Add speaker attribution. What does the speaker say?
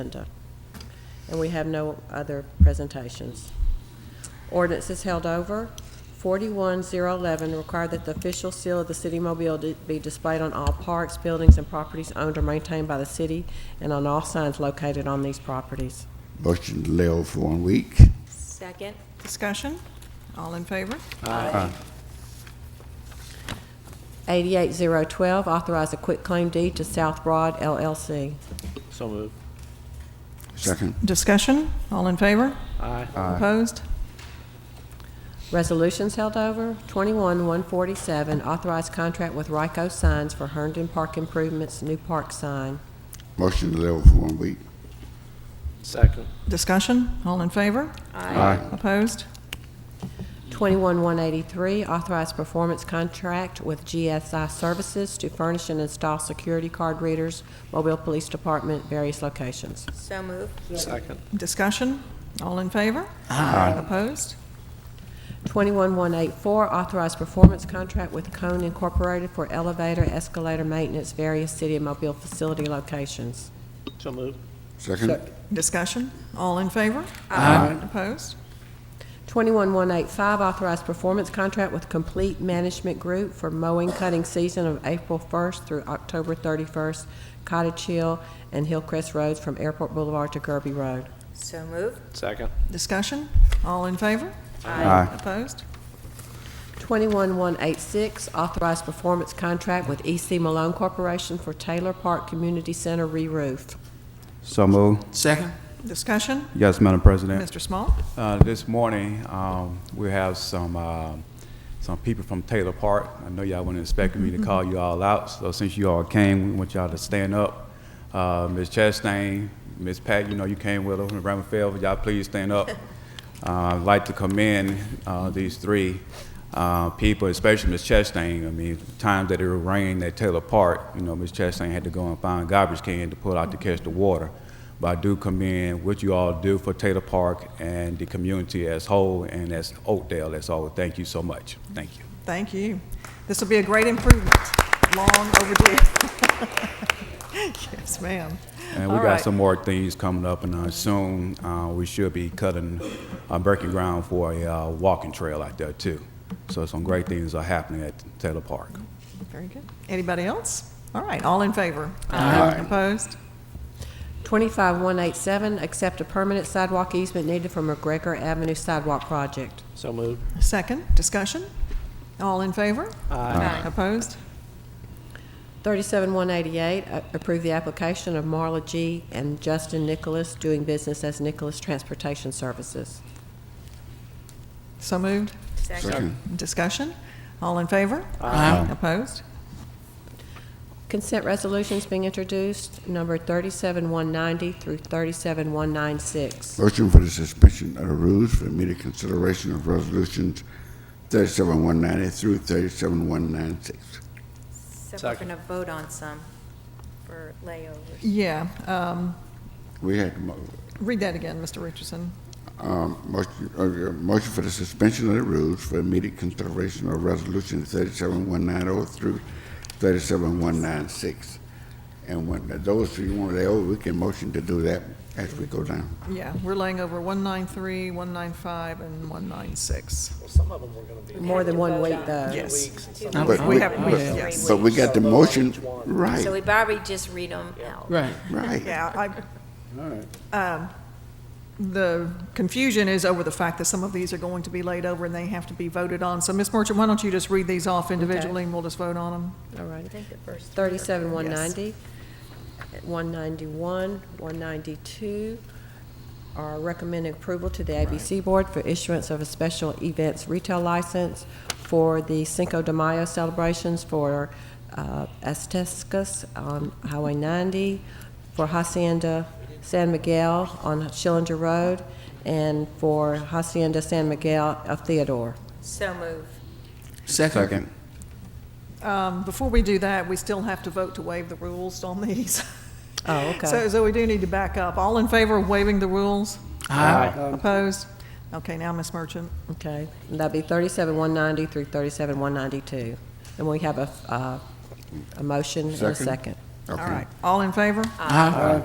Speaker 1: agenda. And we have no other presentations. Ordinance is held over. 41011, require that the official seal of the city of Mobile d- be displayed on all parks, buildings, and properties owned or maintained by the city and on all signs located on these properties.
Speaker 2: Motion to lay over for one week.
Speaker 3: Second.
Speaker 4: Discussion? All in favor?
Speaker 1: 88012, authorize a quitclaim deed to South Broad LLC.
Speaker 5: So moved.
Speaker 2: Second.
Speaker 4: Discussion? All in favor?
Speaker 5: Aye.
Speaker 4: Opposed?
Speaker 1: Resolutions held over. 21-147, authorize contract with Ryko Signs for Herndon Park improvements, new park sign.
Speaker 2: Motion to lay over for one week.
Speaker 5: Second.
Speaker 4: Discussion? All in favor?
Speaker 2: Aye.
Speaker 4: Opposed?
Speaker 1: 21-183, authorized performance contract with GSI Services to furnish and install security card readers, Mobile Police Department, various locations.
Speaker 3: So moved.
Speaker 5: Second.
Speaker 4: Discussion? All in favor?
Speaker 2: Aye.
Speaker 4: Opposed?
Speaker 1: 21-184, authorized performance contract with Cone Incorporated for elevator, escalator maintenance, various city and mobile facility locations.
Speaker 5: So moved.
Speaker 2: Second.
Speaker 4: Discussion? All in favor?
Speaker 2: Aye.
Speaker 4: Opposed?
Speaker 1: 21-185, authorized performance contract with Complete Management Group for mowing cutting season of April 1st through October 31st, Cottage Hill and Hillcrest Roads from Airport Boulevard to Kirby Road.
Speaker 3: So moved.
Speaker 5: Second.
Speaker 4: Discussion? All in favor?
Speaker 2: Aye.
Speaker 4: Opposed?
Speaker 1: 21-186, authorized performance contract with EC Malone Corporation for Taylor Park Community Center re-roof.
Speaker 6: So moved.
Speaker 7: Second?
Speaker 4: Discussion?
Speaker 6: Yes, Madam President.
Speaker 4: Mr. Small?
Speaker 6: Uh, This morning, um, we have some, uh, some people from Taylor Park. I know y'all weren't expecting me to call you all out, so since you all came, we want y'all to stand up. Uh, Ms. Chastain, Ms. Pat, you know you came with her, Ms. Ramafel, y'all please stand up. Uh, I'd like to commend uh, these three uh, people, especially Ms. Chastain. I mean, the times that it rained at Taylor Park, you know, Ms. Chastain had to go and find garbage can to pull out to catch the water. But I do commend what you all do for Taylor Park and the community as whole and as Oakdale as whole. Thank you so much. Thank you.
Speaker 4: Thank you. This will be a great improvement. Long overdue. Yes, ma'am.
Speaker 6: And we
Speaker 4: All
Speaker 6: got
Speaker 4: right.
Speaker 6: some more things coming up, and uh, soon uh, we should be cutting, uh, breaking ground for a uh, walking trail out there too. So some great things are happening at Taylor Park.
Speaker 4: Very good. Anybody else? All right, all in favor?
Speaker 2: Aye.
Speaker 4: Opposed?
Speaker 1: 25-187, accept a permanent sidewalk easement needed for McGregor Avenue sidewalk project.
Speaker 5: So moved.
Speaker 4: Second, discussion? All in favor? Aye. Opposed?
Speaker 1: 37188, a- approve the application of Marla G. and Justin Nicholas, doing business as Nicholas Transportation Services.
Speaker 4: So moved.
Speaker 2: Second.
Speaker 4: Discussion? All in favor?
Speaker 2: Aye.
Speaker 4: Opposed?
Speaker 1: Consent resolutions being introduced, number 37190 through 37196.
Speaker 2: Motion for the suspension of the rules for immediate consideration of resolutions 37190 through 37196.
Speaker 3: So we're
Speaker 5: Second.
Speaker 3: going to vote on some for layovers.
Speaker 4: Yeah. um,
Speaker 2: We had mo-
Speaker 4: Read that again, Mr. Richardson.
Speaker 2: um, motion uh, motion for the suspension of the rules for immediate consideration of resolution 37190 through 37196. And when those who want to lay over, we can motion to do that as we go down.
Speaker 4: Yeah, we're laying over 193, 195, and 196.
Speaker 5: Some of them were going to be
Speaker 1: More than one week, though.
Speaker 4: Yes.
Speaker 2: But
Speaker 4: We
Speaker 2: we,
Speaker 4: have-
Speaker 2: but,
Speaker 4: we have- yes.
Speaker 2: but we got the motion, right,
Speaker 3: So we've already just read them out.
Speaker 7: Right.
Speaker 2: right.
Speaker 4: Yeah, I, um, the confusion is over the fact that some of these are going to be laid over and they have to be voted on. So Ms. Merchant, why don't you just read these off individually and we'll just vote on them?
Speaker 1: All right.
Speaker 3: I think the first. three are-
Speaker 1: 37190, 191, 192 are recommending approval to the ABC Board for issuance of a special events retail license for the Cinco de Mayo celebrations for uh, Aztecas on Highway 90, for Hacienda San Miguel on Schillinger Road, and for Hacienda San Miguel of Theodore.
Speaker 3: So moved.
Speaker 7: Second.
Speaker 4: Um, Before we do that, we still have to vote to waive the rules on these.
Speaker 1: Oh, okay.
Speaker 4: So, so we do need to back up. All in favor of waiving the rules?
Speaker 5: Aye.
Speaker 4: Opposed? Okay, now Ms. Merchant.
Speaker 1: Okay, and that'd be thirty-seven one ninety through thirty-seven one ninety-two. And we have a, uh, a motion and a
Speaker 2: Second.
Speaker 1: second.
Speaker 4: All right, all in favor?
Speaker 7: Aye.